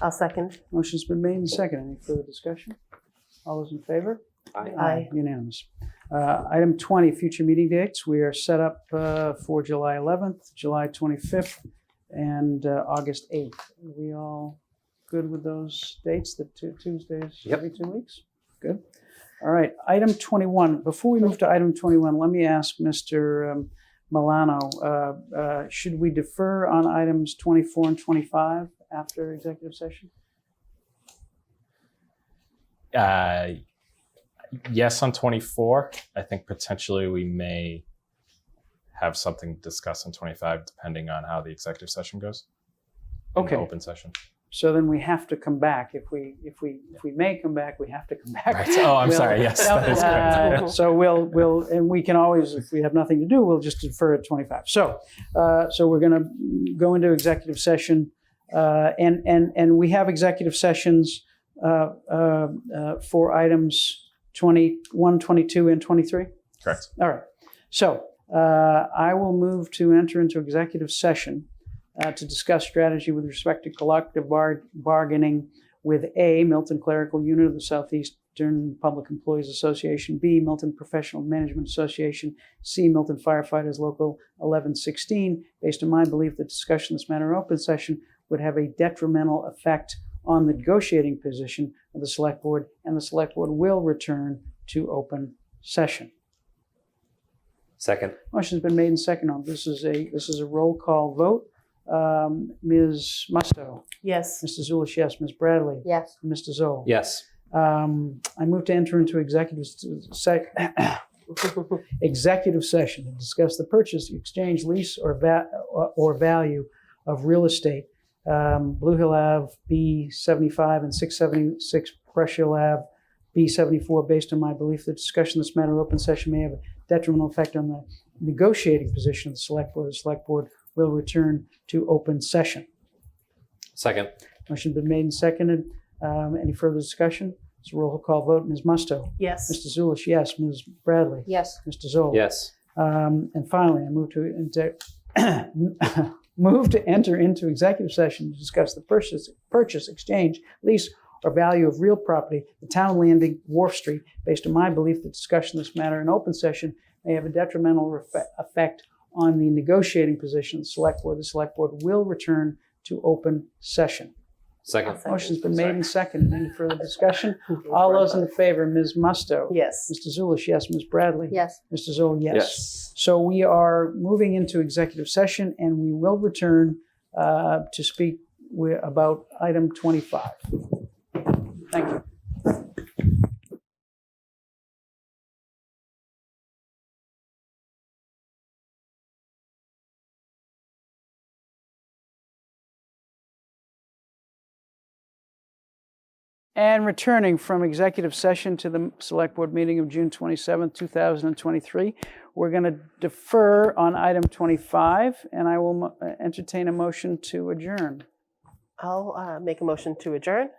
I'll second. Motion's been made and seconded. Any further discussion? All those in favor? Aye. Aye. Unanimous. Uh, Item 20, future meeting dates. We are set up uh, for July 11th, July 25th, and uh, August 8th. Are we all good with those dates, the two Tuesdays Yep. every two weeks? Good. All right, item 21. Before we move to item 21, let me ask Mr. um, Milano, uh, uh, should we defer on items 24 and 25 after executive session? Uh, yes, on 24. I think potentially we may have something discussed on 25, depending on how the executive session goes. and the Okay. Open session. So then we have to come back. If we, if we, if we may come back, we have to come back. Right. Oh, I'm We'll- sorry. Yes, that is Uh, correct. So we'll, we'll, and we can always, if we have nothing to do, we'll just defer at 25. So, uh, so we're going to go into executive session. uh, And, and, and we have executive sessions uh, uh, uh, for items 21, 22, and 23? Correct. All right. So uh, I will move to enter into executive session uh, to discuss strategy with respect to collective bar- bargaining with A, Milton Clerical Unit of the Southeastern Public Employees Association, B, Milton Professional Management Association, C, Milton Firefighters Local 1116. Based on my belief that discussion in this matter in open session would have a detrimental effect on the negotiating position of the Select Board, and the Select Board will return to open session. Second. Motion's been made and seconded. on. This is a, this is a roll call vote. Um, Ms. Musto, Yes. Mr. Zulish, yes, Ms. Bradley, Yes. Mr. Zoll. Yes. Um, I move to enter into executive s- sec, executive session to discuss the purchase, exchange, lease, or va, or value of real estate. Um, Blue Hill Ave, B seventy-five and six seventy-six Brush Hill Ave, B seventy-four, based on my belief that discussion of this matter in open session may have a detrimental effect on the negotiating position of the select board. The select board will return to open session. Second. Motion been made and seconded. Um, any further discussion? It's a roll call vote. Ms. Musto. Yes. Mr. Zulish, yes. Ms. Bradley. Yes. Mr. Zoll. Yes. Um, and finally, I move to enter, move to enter into executive session to discuss the purchase, purchase, exchange, lease, or value of real property, the town landing, Wharf Street, based on my belief that discussion of this matter in open session may have a detrimental refe- effect on the negotiating position of the select board. The select board will return to open session. Second. Motion's been made and seconded. Any further discussion? All those in favor, Ms. Musto. Yes. Mr. Zulish, yes. Ms. Bradley. Yes. Mr. Zoll, so we are moving into executive session and we will return uh, to speak wi- about item 25. Thank you. And returning from executive session to the Select Board meeting of June 27, 2023, we're going to defer on item 25, and I will mo- uh, entertain a motion to adjourn. I'll uh, make a motion to adjourn.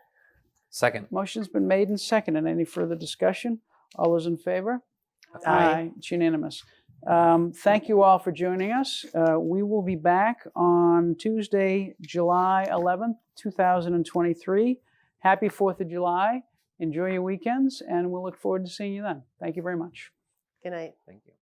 Second. Motion's been made and seconded. Any further discussion? All those in favor? It's unanimous. Um, Thank you all for joining us. Uh, We will be back on Tuesday, July 11th, 2023. Happy 4th of July. Enjoy your weekends, and we'll look forward to seeing you then. Thank you very much. Good night. Thank you.